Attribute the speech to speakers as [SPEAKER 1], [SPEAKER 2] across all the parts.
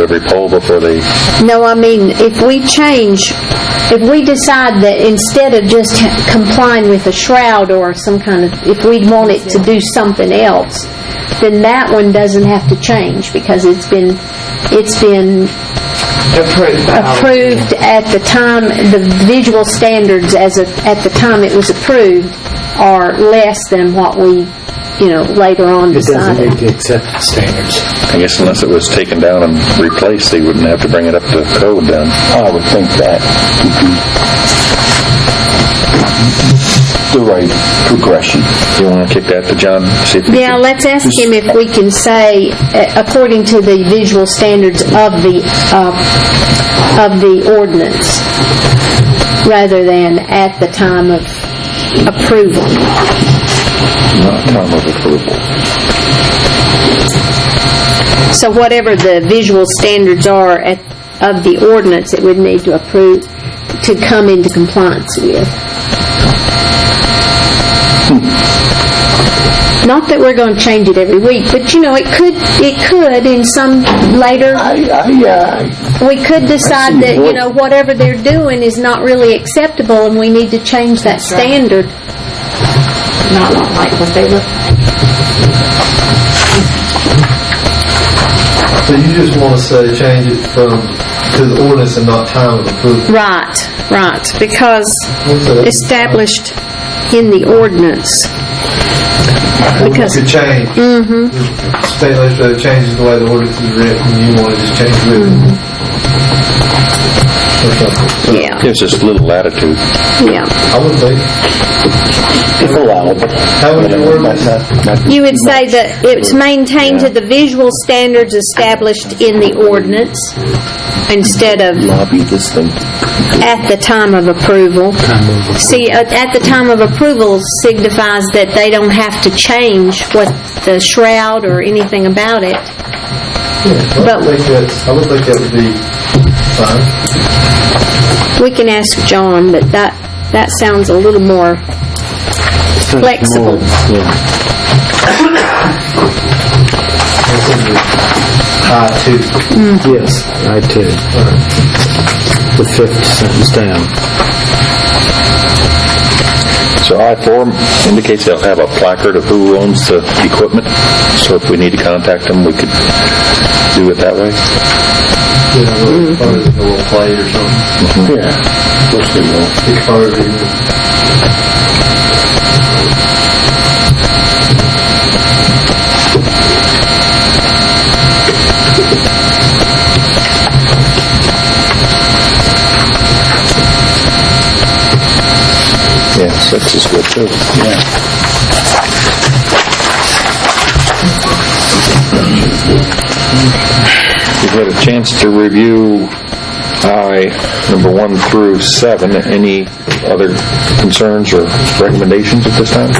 [SPEAKER 1] every poll before they,
[SPEAKER 2] No, I mean, if we change, if we decide that instead of just complying with a shroud or some kind of, if we want it to do something else, then that one doesn't have to change because it's been, it's been
[SPEAKER 3] Approved. by all.
[SPEAKER 2] approved at the time, the visual standards as of, at the time it was approved are less than what we, you know, later on
[SPEAKER 4] It doesn't
[SPEAKER 2] decided.
[SPEAKER 4] meet the accepted standards.
[SPEAKER 1] I guess unless it was taken down and replaced, they wouldn't have to bring it up to code then. I would think that. The right progression. You want to kick that to John, see if he
[SPEAKER 2] Yeah,
[SPEAKER 1] can-
[SPEAKER 2] let's ask him if we can say, uh, according to the visual standards of the, uh, of the ordinance, rather than at the time of approval.
[SPEAKER 1] Not time of approval.
[SPEAKER 2] So whatever the visual standards are at, of the ordinance, it would need to approve, to come into compliance with. Not that we're going to change it every week, but you know, it could, it could in some later
[SPEAKER 5] I, I, uh,
[SPEAKER 2] We could decide that, you
[SPEAKER 5] what-
[SPEAKER 2] know, whatever they're doing is not really acceptable, and we need to change that standard.
[SPEAKER 3] Not not like what they look.
[SPEAKER 6] So you just want to say change it from, to the ordinance and not time of approval?
[SPEAKER 2] Right, right, because established in the ordinance. Because-
[SPEAKER 6] Could change. Mm-hmm. State legislature changes the way the ordinance is written, you want to just change it with it. Or something.
[SPEAKER 2] Yeah,
[SPEAKER 1] Gives us a little latitude.
[SPEAKER 2] yeah.
[SPEAKER 6] I would think,
[SPEAKER 5] it's allowable.
[SPEAKER 6] how would your ordinance,
[SPEAKER 2] You would say that it's maintained to the visual standards established in the ordinance instead of
[SPEAKER 5] Lobby this thing.
[SPEAKER 2] at the time of approval. See, at at the time of approval signifies that they don't have to change what the shroud or anything about it.
[SPEAKER 6] I
[SPEAKER 2] But-
[SPEAKER 6] would think that's, I would think that would be fine.
[SPEAKER 2] We can ask John, but that, that sounds a little more flexible.
[SPEAKER 6] This is the high two.
[SPEAKER 4] Yes, I too. The fifth sentence down.
[SPEAKER 1] So I-4 indicates they'll have a placard of who owns the equipment, so if we need to contact them, we could do it that way.
[SPEAKER 6] You know, little photos of a little plate or something,
[SPEAKER 5] Yeah. Of course they will.
[SPEAKER 6] big photo even.
[SPEAKER 1] Yeah, six is good too. Yeah. You've had a chance to review I, number one through seven. Any other concerns or recommendations at this time?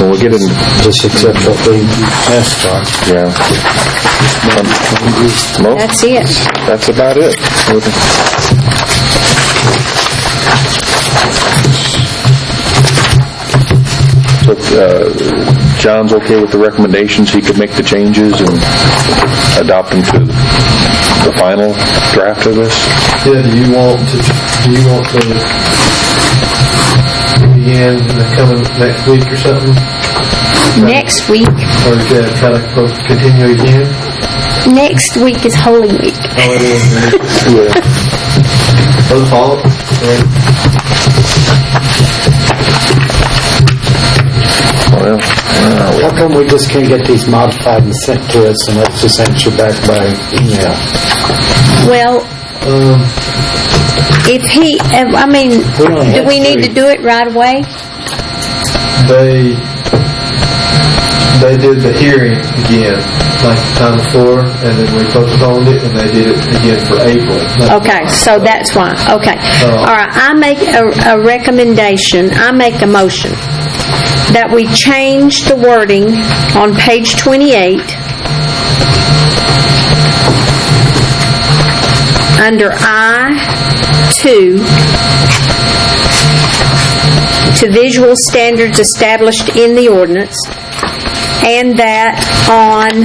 [SPEAKER 1] Well, we'll get in,
[SPEAKER 4] Just accept what we asked for.
[SPEAKER 1] yeah. Well,
[SPEAKER 2] That's it.
[SPEAKER 1] That's about it. So, uh, John's okay with the recommendations, he could make the changes and adopt them to the final draft of this?
[SPEAKER 6] Yeah, do you want to, do you want to begin in the coming next week or something?
[SPEAKER 2] Next week,
[SPEAKER 6] Or is that kind of supposed to continue again?
[SPEAKER 2] next week is Holy Week.
[SPEAKER 6] Oh, it is. Yeah. Or the fall? Right.
[SPEAKER 1] Well,
[SPEAKER 4] How come we just can't get these modified and sent to us and let's just answer back by email?
[SPEAKER 2] Well,
[SPEAKER 6] Um,
[SPEAKER 2] if he, I mean,
[SPEAKER 4] only
[SPEAKER 2] do
[SPEAKER 4] have
[SPEAKER 2] we need to
[SPEAKER 4] three.
[SPEAKER 2] do it right away?
[SPEAKER 6] they, they did the hearing again, like the time before, and then we postponed it, and they did it again for April. Not-
[SPEAKER 2] Okay, so that's why, okay.
[SPEAKER 6] Oh.
[SPEAKER 2] All right, I make a, a recommendation, I make a motion that we change the wording on page 28 under I-2 to visual standards established in the ordinance, and that on